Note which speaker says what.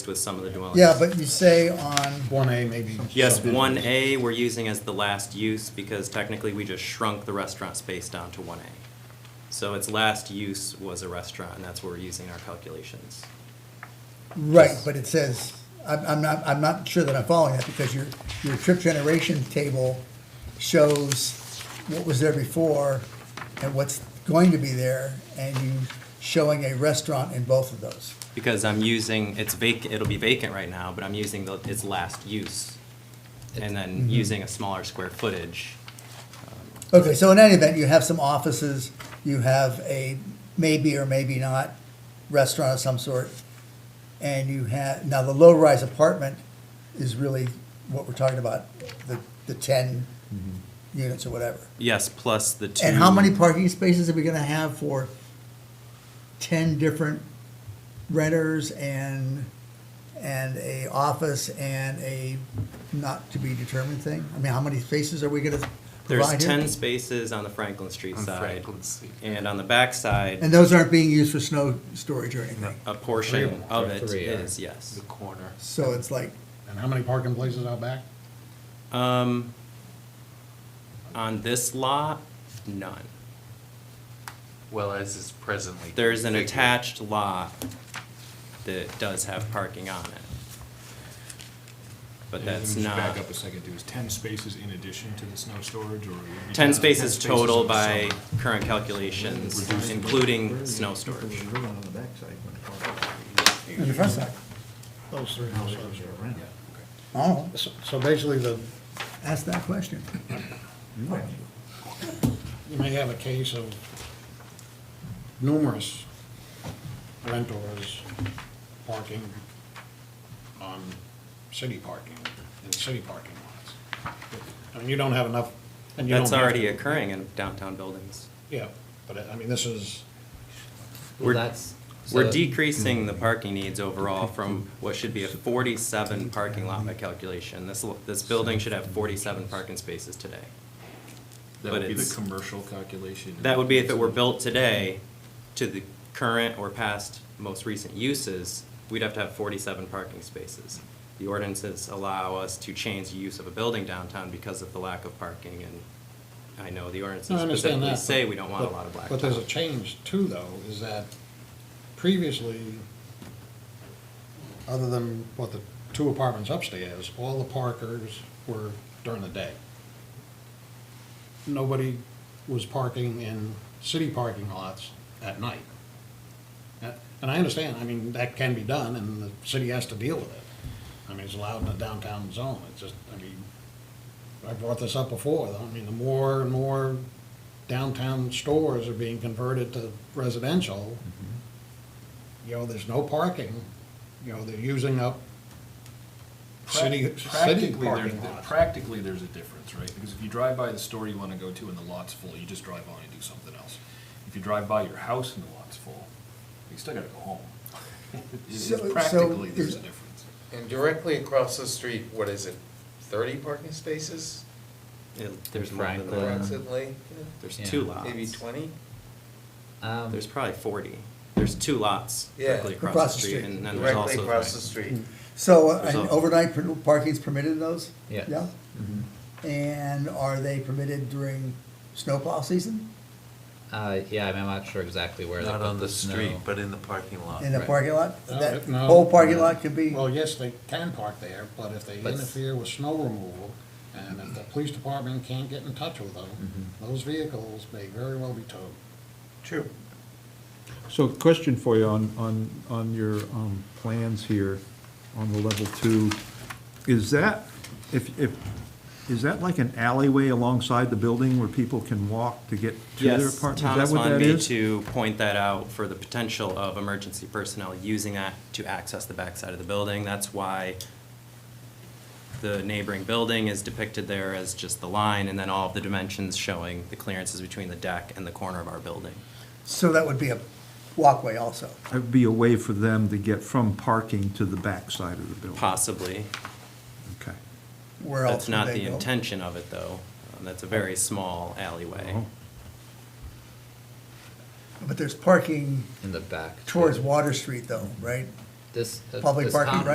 Speaker 1: with some of the dwellings.
Speaker 2: Yeah, but you say on,
Speaker 3: One A maybe.
Speaker 1: Yes, one A we're using as the last use because technically we just shrunk the restaurant space down to one A. So its last use was a restaurant and that's where we're using our calculations.
Speaker 2: right, but it says, I'm, I'm not, I'm not sure that I'm following that because your, your trip generation table shows what was there before and what's going to be there and you showing a restaurant in both of those.
Speaker 1: Because I'm using, it's vacant, it'll be vacant right now, but I'm using the, its last use. And then using a smaller square footage.
Speaker 2: Okay, so in any event, you have some offices, you have a maybe or maybe not restaurant of some sort, and you have, now the low-rise apartment is really what we're talking about, the, the ten units or whatever.
Speaker 1: Yes, plus the Mm-hmm. two.
Speaker 2: And how many parking spaces are we gonna have for ten different renters and, and a office and a not-to-be-determined thing? I mean, how many spaces are we gonna
Speaker 1: There's
Speaker 2: provide here?
Speaker 1: ten spaces on the Franklin Street
Speaker 3: On
Speaker 1: side.
Speaker 3: Franklin Street.
Speaker 1: And on the back side,
Speaker 2: And those aren't being used for snow storage or anything?
Speaker 1: a portion of it
Speaker 4: Three are-
Speaker 1: is, yes.
Speaker 4: The corner.
Speaker 2: So it's like,
Speaker 3: And how many parking places out back?
Speaker 1: Um, on this lot, none.
Speaker 4: Well, as is presently.
Speaker 1: There's an
Speaker 4: configured.
Speaker 1: attached lot that does have parking on it. But
Speaker 5: And then
Speaker 1: that's
Speaker 5: just
Speaker 1: not,
Speaker 5: Back up a second, there was ten spaces in addition to the snow storage, or? every
Speaker 1: ten
Speaker 5: time-
Speaker 1: spaces
Speaker 5: 10 in
Speaker 1: total
Speaker 5: the
Speaker 1: by
Speaker 5: summer.
Speaker 1: current calculations, including snow storage.
Speaker 2: in the front side,
Speaker 3: Those three houses.
Speaker 2: oh,
Speaker 3: So- So basically, the,
Speaker 2: ask that question.
Speaker 3: you may have a case of numerous renters parking on city parking, in city parking lots. I mean, you don't have enough, and you don't.
Speaker 1: That's
Speaker 3: have-
Speaker 1: already occurring in downtown buildings.
Speaker 3: Yeah, but I I mean, this is,
Speaker 1: We're-
Speaker 4: that's-
Speaker 1: We're
Speaker 4: so-
Speaker 1: decreasing the parking needs overall from what should be a forty-seven parking lot by calculation. This, l- this building should have forty-seven parking spaces today.
Speaker 5: That
Speaker 1: but
Speaker 5: would be
Speaker 1: it's-
Speaker 5: the commercial calculation.
Speaker 1: That would be if it were built today to the current or past most recent uses, we'd have to have forty-seven parking spaces. The ordinances allow us to change the use of a building downtown because of the lack of parking, and I know the
Speaker 3: No,
Speaker 1: ordinances
Speaker 3: I understand
Speaker 1: specifically
Speaker 3: that.
Speaker 1: say
Speaker 3: but-
Speaker 1: we don't want a
Speaker 3: but-
Speaker 1: lot of blacktop.
Speaker 3: But there's a change too, though, is that previously, other than what the two apartments upstairs, all the parkers were during the day. Nobody was parking in city parking lots at night. Uh, And I understand, I mean, that can be done, and the city has to deal with it. I mean, it's allowed in the downtown zone, it's just, I mean, I brought this up before, though, I mean, the more and more downtown stores are being converted to residential,
Speaker 5: Mm-hmm.
Speaker 3: you know, there's no parking, you know, they're using up city, city
Speaker 5: Practically, there's,
Speaker 3: parking lots.
Speaker 5: practically, there's a difference, right? Because if you drive by the store you wanna go to and the lot's full, you just drive on and do something else. If you drive by your house and the lot's full, you still gotta go home. It's-
Speaker 2: So- so
Speaker 5: it's Practically, there's
Speaker 2: is-
Speaker 5: a difference.
Speaker 6: And directly across the street, what is it, thirty parking spaces
Speaker 1: It- There's more than
Speaker 4: Franklin.
Speaker 1: that.
Speaker 6: approximately?
Speaker 1: There's
Speaker 4: Yeah.
Speaker 1: two lots.
Speaker 6: Maybe twenty?
Speaker 4: Um,
Speaker 1: There's probably forty. There's two lots
Speaker 6: Yeah.
Speaker 1: directly across the street, and then there's also.
Speaker 6: Directly across the street.
Speaker 2: So uh,
Speaker 1: There's
Speaker 2: and
Speaker 1: a-
Speaker 2: overnight per- parking's permitted in those?
Speaker 4: Yes.
Speaker 2: Yeah?
Speaker 1: Mm-hmm.
Speaker 2: And are they permitted during snowplow season?
Speaker 7: Uh, yeah, I'm not sure exactly where they
Speaker 4: Not
Speaker 7: put
Speaker 4: on the
Speaker 7: snow.
Speaker 4: street, but in the parking lot.
Speaker 2: In the
Speaker 7: Right.
Speaker 2: parking lot?
Speaker 3: No,
Speaker 2: That
Speaker 3: no.
Speaker 2: whole parking lot could be,
Speaker 3: Well, yes, they can park there, but if they
Speaker 7: But-
Speaker 3: interfere with snow removal, and if the police department can't get in touch with them,
Speaker 2: Mm-hmm.
Speaker 3: those vehicles may very well be towed.
Speaker 6: True.
Speaker 8: So question for you on, on, on your um, plans here, on the level two, is that, if, if, is that like an alleyway alongside the building where people can walk to get to their
Speaker 1: Yes,
Speaker 8: apartment?
Speaker 1: Thomas
Speaker 8: Is that what
Speaker 1: wanted
Speaker 8: that
Speaker 1: me
Speaker 8: is?
Speaker 1: to point that out for the potential of emergency personnel using that to access the backside of the building. That's why the neighboring building is depicted there as just the line, and then all of the dimensions showing the clearances between the deck and the corner of our building.
Speaker 2: so that would be a walkway also.
Speaker 8: That'd be a way for them to get from parking to the backside of the building?
Speaker 1: Possibly.
Speaker 8: Okay.
Speaker 2: Where else
Speaker 1: That's
Speaker 2: would
Speaker 1: not
Speaker 2: they
Speaker 1: the
Speaker 2: go?
Speaker 1: intention of it, though. Um, That's a very small alleyway.
Speaker 8: Oh.
Speaker 2: But there's parking
Speaker 7: In the back.
Speaker 2: towards Water Street though, right?
Speaker 7: This. uh,
Speaker 2: Public
Speaker 7: this
Speaker 2: parking,
Speaker 7: com-
Speaker 2: right?